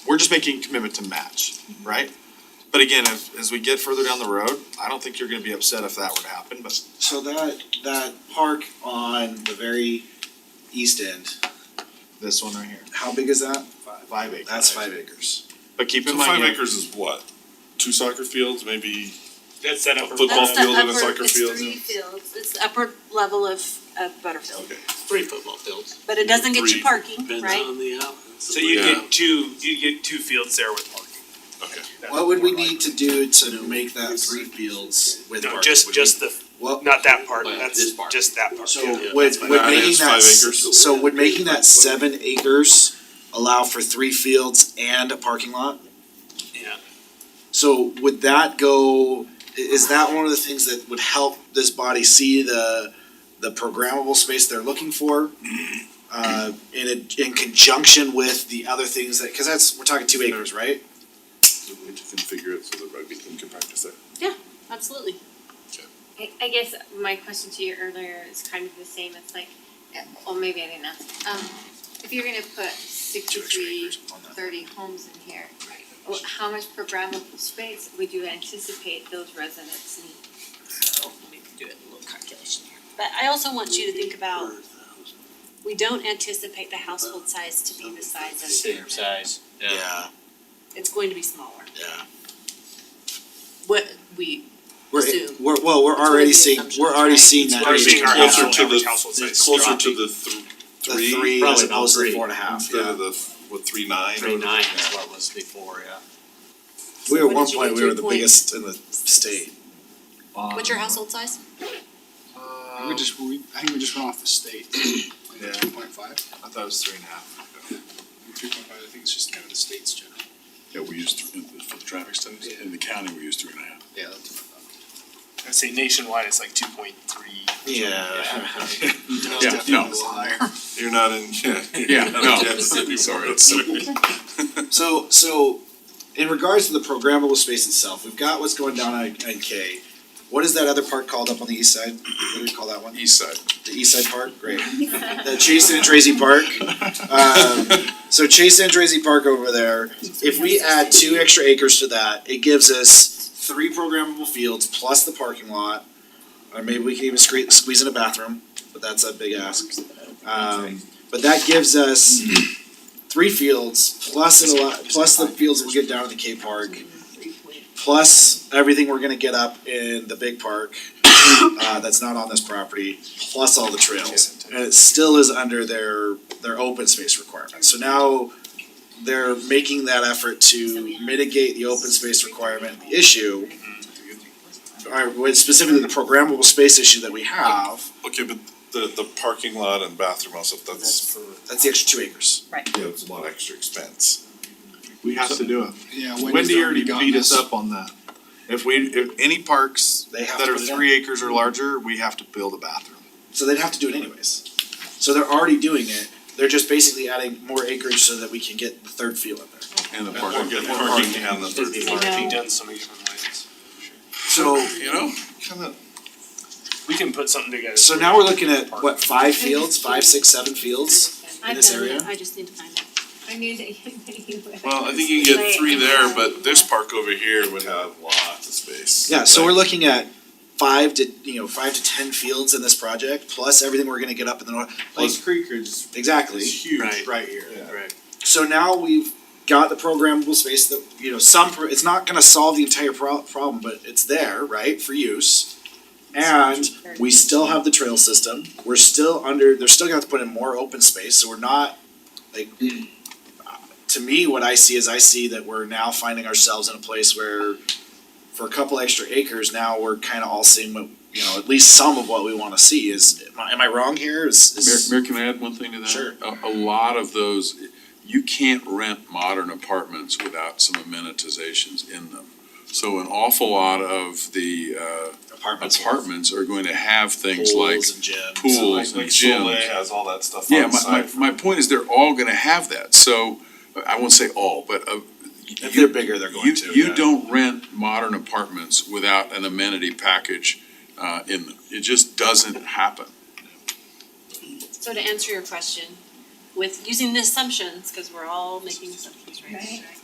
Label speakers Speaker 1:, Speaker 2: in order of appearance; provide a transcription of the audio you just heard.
Speaker 1: we're just making a commitment to match, right? But again, as, as we get further down the road, I don't think you're gonna be upset if that were to happen, but
Speaker 2: So that, that park on the very east end,
Speaker 1: this one right here,
Speaker 2: how big is that?
Speaker 1: five acres.
Speaker 2: That's five acres.
Speaker 1: But keep
Speaker 3: So
Speaker 1: in mind,
Speaker 3: five
Speaker 1: you know,
Speaker 3: acres is what? Two soccer fields, maybe?
Speaker 4: That's that upper.
Speaker 3: Football
Speaker 5: That's the
Speaker 3: field and a
Speaker 5: upper-
Speaker 3: soccer field.
Speaker 5: It's three fields, it's the upper level of, of Butterfield,
Speaker 3: Okay.
Speaker 4: Three football fields.
Speaker 5: but it doesn't get
Speaker 3: Three.
Speaker 5: you parking, right?
Speaker 4: So you
Speaker 3: Yeah.
Speaker 4: get two, you get two fields there with parking.
Speaker 3: Okay.
Speaker 2: What would we need to do to make that three fields with
Speaker 4: No,
Speaker 2: park?
Speaker 4: just,
Speaker 2: Would we-
Speaker 4: just the,
Speaker 2: What,
Speaker 4: not that part,
Speaker 6: Well,
Speaker 4: that's
Speaker 6: this part.
Speaker 4: just that part.
Speaker 2: so
Speaker 4: yeah.
Speaker 2: would,
Speaker 3: fine.
Speaker 2: would
Speaker 3: That
Speaker 2: making
Speaker 3: is
Speaker 2: that,
Speaker 3: five
Speaker 2: s-
Speaker 3: acres.
Speaker 2: so would making that seven acres allow for three fields and a parking lot?
Speaker 4: Yeah.
Speaker 2: So would that go, i- is that one of the things that would help this body see the, the programmable space they're looking for? Uh, in a, in conjunction with the other things that, cause that's, we're talking two acres, right?
Speaker 3: So we need to configure it so that rugby team can practice there.
Speaker 5: Absolutely.
Speaker 7: I, I guess my question to you earlier is kind of the same, it's like, well, maybe I didn't ask. Um, if you're gonna put
Speaker 2: Two extra
Speaker 7: sixty-three,
Speaker 2: acres on that.
Speaker 7: thirty homes in here, wh- how much programmable space would you anticipate those residents need?
Speaker 5: Do it a little calculation here. But I also want you to think about, we don't anticipate the household size to be the size of
Speaker 6: Same
Speaker 5: Spearmint.
Speaker 6: size, yeah.
Speaker 5: It's going to be smaller.
Speaker 2: yeah.
Speaker 5: What we,
Speaker 2: We're,
Speaker 5: Assume.
Speaker 2: we're, well, we're
Speaker 5: That's one of
Speaker 2: already
Speaker 5: the
Speaker 2: seeing,
Speaker 5: assumptions,
Speaker 2: we're already
Speaker 5: right?
Speaker 2: seeing that.
Speaker 4: We're seeing our
Speaker 3: Closer
Speaker 4: household,
Speaker 3: to the-
Speaker 4: average household size
Speaker 3: It's closer to
Speaker 4: dropping.
Speaker 3: the th-
Speaker 2: The
Speaker 3: three.
Speaker 2: three
Speaker 6: probably
Speaker 2: as
Speaker 6: about
Speaker 2: opposed to the
Speaker 6: three.
Speaker 2: four and a half,
Speaker 3: Instead
Speaker 2: yeah.
Speaker 3: of the, f- what, three nine?
Speaker 6: Three nine is what it was before, yeah.
Speaker 2: We were at
Speaker 5: What
Speaker 2: one
Speaker 5: did you
Speaker 2: point,
Speaker 5: get
Speaker 2: we
Speaker 5: to
Speaker 2: were
Speaker 5: a
Speaker 2: the
Speaker 5: point?
Speaker 2: biggest in the state.
Speaker 5: what's your household size?
Speaker 8: We just, we, I think we just went off the state,
Speaker 1: Yeah.
Speaker 8: like two point five,
Speaker 1: I thought it was three and a half.
Speaker 8: two point five, I think it's just kind of the state's general.
Speaker 9: Yeah, we used, three- for the traffic studies, in the county, we used three and a half.
Speaker 8: Yeah, that's what I thought.
Speaker 4: I'd say nationwide, it's like two point three.
Speaker 2: Yeah.
Speaker 9: Yeah, no.
Speaker 3: You're not in, yeah.
Speaker 9: Yeah, no.
Speaker 3: Sorry.
Speaker 2: So, so in regards to the programmable space itself, we've got what's going down on, on K. What is that other park called up on the east side? What do we call that one?
Speaker 3: East side.
Speaker 2: The east side park, great. The Chase and Tracy Park. Um, so Chase and Tracy Park over there, if we add two extra acres to that, it gives us three programmable fields plus the parking lot. Or maybe we can even scree- squeeze in a bathroom, but that's a big ask. Um, but that gives us three fields plus it a lot, plus the fields we'll get down at the K Park. Plus everything we're gonna get up in the big park, uh, that's not on this property, plus all the trails. And it still is under their, their open space requirement, so now they're making that effort to mitigate the open space requirement issue. Or with specifically the programmable space issue that we have,
Speaker 3: Okay, but the, the parking lot and bathroom also, that's,
Speaker 2: that's the extra two acres.
Speaker 3: yeah, it's a lot of extra expense.
Speaker 1: We have to do it.
Speaker 8: Yeah, Wendy's
Speaker 1: Wendy already
Speaker 8: gotten
Speaker 1: beat us up on that. If we, if any parks
Speaker 2: They have
Speaker 1: that
Speaker 2: to
Speaker 1: are
Speaker 2: put it in.
Speaker 1: three acres or larger, we have to build a bathroom.
Speaker 2: So they'd have to do it anyways. So they're already doing it, they're just basically adding more acreage so that we can get the third field in there.
Speaker 9: And the
Speaker 3: Or get parking and the third
Speaker 4: It's
Speaker 3: floor.
Speaker 4: already done so many different ways.
Speaker 2: So,
Speaker 3: You know, kinda,
Speaker 4: We can put something together.
Speaker 2: so now we're looking at, what, five fields, five, six, seven fields?
Speaker 5: I've
Speaker 2: this
Speaker 5: done
Speaker 2: area?
Speaker 5: it, I just need to find it.
Speaker 7: I knew that you would.
Speaker 3: well, I think you can get three there, but this park over here would have lots of space.
Speaker 2: Yeah, so we're
Speaker 3: Like,
Speaker 2: looking at five to, you know, five to ten fields in this project, plus everything we're gonna get up in the north, like,
Speaker 1: Creek is
Speaker 2: exactly.
Speaker 1: huge right here.
Speaker 3: Yeah.
Speaker 2: So now we've got the programmable space that, you know, some, pro- it's not gonna solve the entire pro- problem, but it's there, right, for use. And we still have the trail system, we're still under, they're still gonna have to put in more open space, so we're not, like. To me, what I see is I see that we're now finding ourselves in a place where for a couple extra acres, now we're kinda all seeing what, you know, at least some of what we wanna see is, am I, am I wrong here? Is,
Speaker 9: Mayor,
Speaker 2: is,
Speaker 9: Mayor, can I add one thing to that?
Speaker 2: Sure.
Speaker 9: A, a lot of those, you can't rent modern apartments without some amenitizations in them. So an awful lot of the, uh,
Speaker 2: apartments,
Speaker 9: apartments are going to have things like
Speaker 2: pools and gyms.
Speaker 9: pools and
Speaker 3: Like
Speaker 9: gyms.
Speaker 3: Soleil has all that stuff
Speaker 9: Yeah,
Speaker 3: on
Speaker 9: my,
Speaker 3: site.
Speaker 9: my, my point is they're all gonna have that, so, I won't say all, but, uh.
Speaker 2: If
Speaker 9: you-
Speaker 2: they're bigger, they're going
Speaker 9: You,
Speaker 2: to, yeah.
Speaker 9: you don't rent modern apartments without an amenity package, uh, in them, it just doesn't happen.
Speaker 5: So to answer your question, with using the assumptions, cause we're all making assumptions, right?